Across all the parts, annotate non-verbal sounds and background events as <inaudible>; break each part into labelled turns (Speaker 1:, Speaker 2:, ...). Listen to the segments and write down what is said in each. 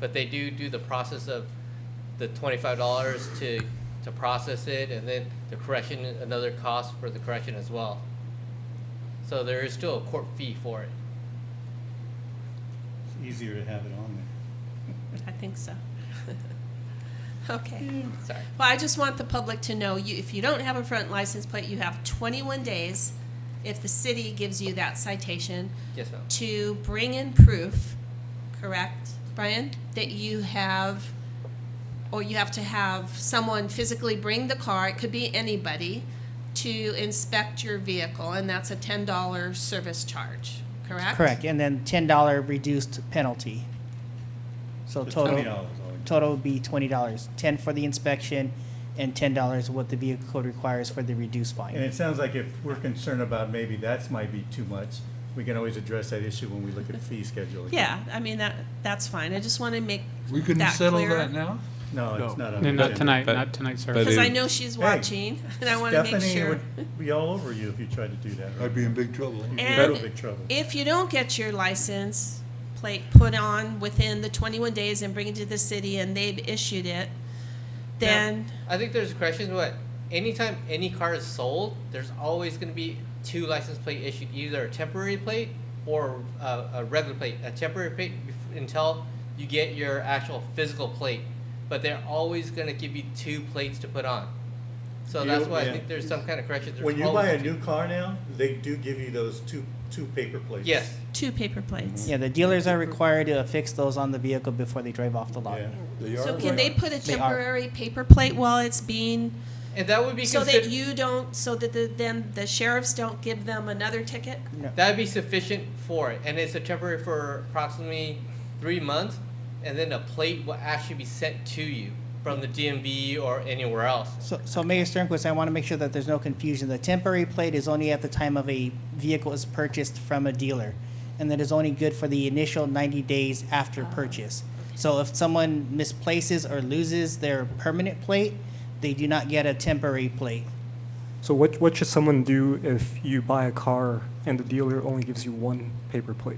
Speaker 1: but they do do the process of the twenty-five dollars to, to process it, and then the correction, another cost for the correction as well. So there is still a court fee for it.
Speaker 2: It's easier to have it on there.
Speaker 3: I think so. <laughs> Okay.
Speaker 1: Sorry.
Speaker 3: Well, I just want the public to know, you, if you don't have a front license plate, you have twenty-one days, if the city gives you that citation,
Speaker 1: Yes, ma'am.
Speaker 3: to bring in proof, correct, Brian, that you have, or you have to have someone physically bring the car, it could be anybody, to inspect your vehicle, and that's a ten dollar service charge, correct?
Speaker 4: Correct, and then ten dollar reduced penalty. So
Speaker 2: So twenty
Speaker 4: total,
Speaker 2: dollars all
Speaker 4: total would be twenty dollars, ten for the inspection and ten dollars what the vehicle code requires for the reduced
Speaker 2: And
Speaker 4: fine.
Speaker 2: it sounds like if we're concerned about maybe that's might be too much, we can always address that issue when we look at fee scheduling.
Speaker 3: Yeah, I mean, that, that's fine, I just wanna make
Speaker 5: We couldn't
Speaker 3: that
Speaker 5: settle
Speaker 3: clear.
Speaker 5: that now?
Speaker 2: No, it's
Speaker 5: No.
Speaker 2: not on the
Speaker 6: No, not
Speaker 2: agenda.
Speaker 6: tonight,
Speaker 7: But-
Speaker 6: not tonight, sir.
Speaker 7: but
Speaker 3: Because
Speaker 7: it-
Speaker 3: I know she's watching, and I want to make sure.
Speaker 2: Stephanie would be all over you if you tried to do that. right?
Speaker 5: I'd be in big trouble.
Speaker 2: You'd be in
Speaker 3: And-
Speaker 2: real big trouble.
Speaker 3: If you don't get your license plate put on within the 21 days and bring it to the city and they've issued it, then,
Speaker 1: I think there's corrections, but anytime any car is sold, there's always going to be two license plate issued, either a temporary plate or a, a regular plate. A temporary plate bef- until you get your actual physical plate, but they're always going to give you two plates to put on. So
Speaker 2: You-
Speaker 1: that's why
Speaker 2: yeah.
Speaker 1: I think there's some kind of correction. There's
Speaker 2: When you buy a
Speaker 1: always-
Speaker 2: new car now, they do give you those two, two paper plates.
Speaker 1: yes,
Speaker 3: two paper plates.
Speaker 4: Yeah, the dealers are required to affix those on the vehicle before they drive off the lot.
Speaker 2: Yeah.
Speaker 5: They
Speaker 3: So
Speaker 5: are
Speaker 3: can they put a
Speaker 4: They are.
Speaker 3: temporary paper plate while it's being,
Speaker 1: and that would be
Speaker 3: so that
Speaker 1: consider-
Speaker 3: you don't, so that the- then the sheriffs don't give them another ticket?
Speaker 1: That'd be sufficient for it, and it's a temporary for approximately three months, and then a plate will actually be sent to you from the DMV or anywhere else.
Speaker 4: So, so Mayor Sternquist, I want to make sure that there's no confusion. The temporary plate is only at the time of a vehicle is purchased from a dealer, and that is only good for the initial 90 days after purchase. So if someone misplaces or loses their permanent plate, they do not get a temporary plate.
Speaker 8: So what, what should someone do if you buy a car and the dealer only gives you one paper plate?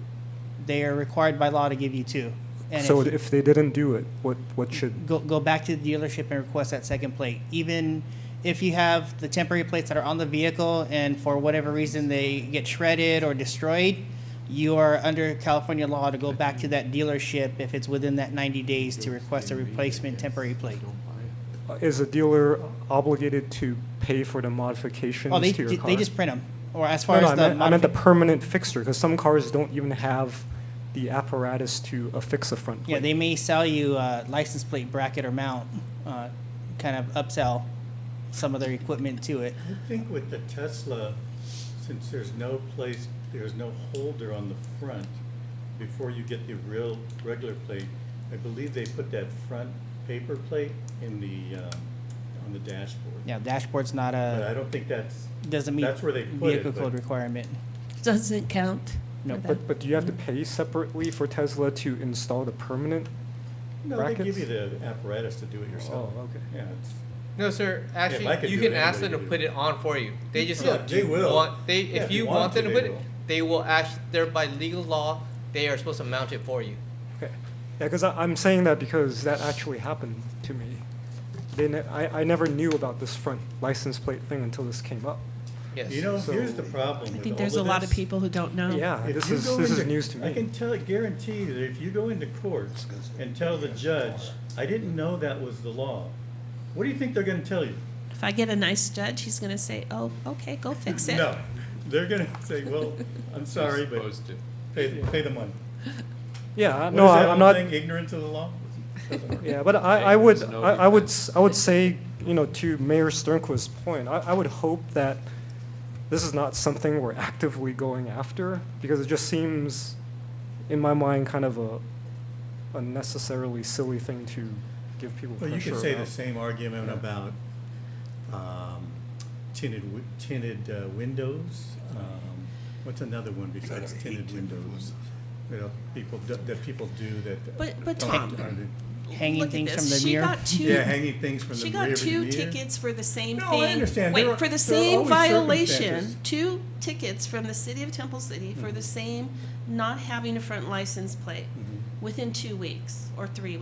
Speaker 4: They are required by law to give you two. And
Speaker 8: So
Speaker 4: if-
Speaker 8: if they didn't do it, what, what should?
Speaker 4: go, go back to the dealership and request that second plate. Even if you have the temporary plates that are on the vehicle and for whatever reason they get shredded or destroyed, you are under California law to go back to that dealership if it's within that 90 days to request a replacement temporary plate.
Speaker 8: Is a dealer obligated to pay for the modifications
Speaker 4: Oh, they,
Speaker 8: to your car?
Speaker 4: they just print them. Or as
Speaker 8: No,
Speaker 4: far
Speaker 8: no, I
Speaker 4: as the,
Speaker 8: meant, I meant the
Speaker 4: modifi-
Speaker 8: permanent fixture, because some cars don't even have the apparatus to affix a front plate.
Speaker 4: yeah, they may sell you a license plate bracket or mount, uh, kind of upsell some of their equipment to it.
Speaker 2: I think with the Tesla, since there's no place, there's no holder on the front, before you get the real regular plate, I believe they put that front paper plate in the, um, on the dashboard.
Speaker 4: Yeah, dashboard's not
Speaker 2: But I
Speaker 4: a,
Speaker 2: don't think that's,
Speaker 4: doesn't meet
Speaker 2: that's where they put it,
Speaker 4: vehicle
Speaker 2: but-
Speaker 4: code requirement.
Speaker 3: Doesn't count.
Speaker 4: No,
Speaker 3: for
Speaker 8: But,
Speaker 3: them.
Speaker 8: but do you have to pay separately for Tesla to install the permanent?
Speaker 2: no, they give
Speaker 8: Brackets?
Speaker 2: you the apparatus to do it yourself.
Speaker 8: Oh, okay.
Speaker 2: Yeah, it's,
Speaker 1: No, sir. Actually,
Speaker 2: I could
Speaker 1: you
Speaker 2: do
Speaker 1: can
Speaker 2: it,
Speaker 1: ask them to
Speaker 2: anybody can
Speaker 1: put
Speaker 2: do
Speaker 1: it on for you. They just
Speaker 2: Yeah,
Speaker 1: do
Speaker 2: they
Speaker 1: you
Speaker 2: will.
Speaker 1: Want, they
Speaker 2: Yeah,
Speaker 1: if you want them to
Speaker 2: they
Speaker 1: put it,
Speaker 2: will.
Speaker 1: they will actually. They're by legal law. They are supposed to mount it for you.
Speaker 8: Okay. Yeah, because I'm saying that because that actually happened to me. They ne- I, I never knew about this front license plate thing until this came up.
Speaker 1: Yes.
Speaker 2: You know, here's
Speaker 8: So-
Speaker 2: the problem
Speaker 3: I
Speaker 2: with
Speaker 3: think
Speaker 2: all
Speaker 3: there's a
Speaker 2: of
Speaker 3: lot of
Speaker 2: this.
Speaker 3: people who don't know.
Speaker 8: Yeah,
Speaker 2: If
Speaker 8: this
Speaker 2: you
Speaker 8: is,
Speaker 2: go
Speaker 8: this is
Speaker 2: into-
Speaker 8: news to
Speaker 2: I can
Speaker 8: me.
Speaker 2: tell, guarantee you that if you go into court and tell the judge, I didn't know that was the law, what do you think they're gonna tell you?
Speaker 3: If I get a nice judge, he's gonna say, oh, okay, go fix it.
Speaker 2: No, they're gonna say, well, I'm sorry, but
Speaker 7: Supposed to.
Speaker 2: pay, pay the money.
Speaker 8: Yeah,
Speaker 2: What
Speaker 8: no,
Speaker 2: is that
Speaker 8: I- I'm
Speaker 2: whole
Speaker 8: not,
Speaker 2: thing, ignorant of the law?
Speaker 8: yeah, but I, I
Speaker 7: Hey,
Speaker 8: would,
Speaker 7: there's no
Speaker 8: I I would, s- I would say, you know, to Mayor Sternquist's point, I, I would hope that this is not something we're actively going after, because it just seems, in my mind, kind of a unnecessarily silly thing to give people
Speaker 2: Well,
Speaker 8: pressure
Speaker 2: you could say the
Speaker 8: about.
Speaker 2: same argument about, um, tinted, wi- tinted uh, windows. Um, What's another one besides tinted windows? You know, people, do- that people do that.
Speaker 3: But, but
Speaker 2: don't-
Speaker 3: Tom,
Speaker 2: aren't in-
Speaker 4: hanging
Speaker 3: look at
Speaker 4: things from
Speaker 3: this.
Speaker 4: the
Speaker 3: She
Speaker 4: mirror.
Speaker 3: got two.
Speaker 2: Yeah, hanging things from the
Speaker 3: She
Speaker 2: rear
Speaker 3: got
Speaker 2: of the
Speaker 3: two
Speaker 2: mirror.
Speaker 3: tickets for the same
Speaker 2: No, I
Speaker 3: thing.
Speaker 2: understand. There
Speaker 3: Wait,
Speaker 2: are-
Speaker 3: for the
Speaker 2: there are
Speaker 3: same
Speaker 2: always
Speaker 3: violation.
Speaker 2: circumstances. Mm-hmm.
Speaker 3: Two tickets from the city of Temple City for the same not having a front license plate.
Speaker 2: Mm-hmm.
Speaker 3: within two weeks or three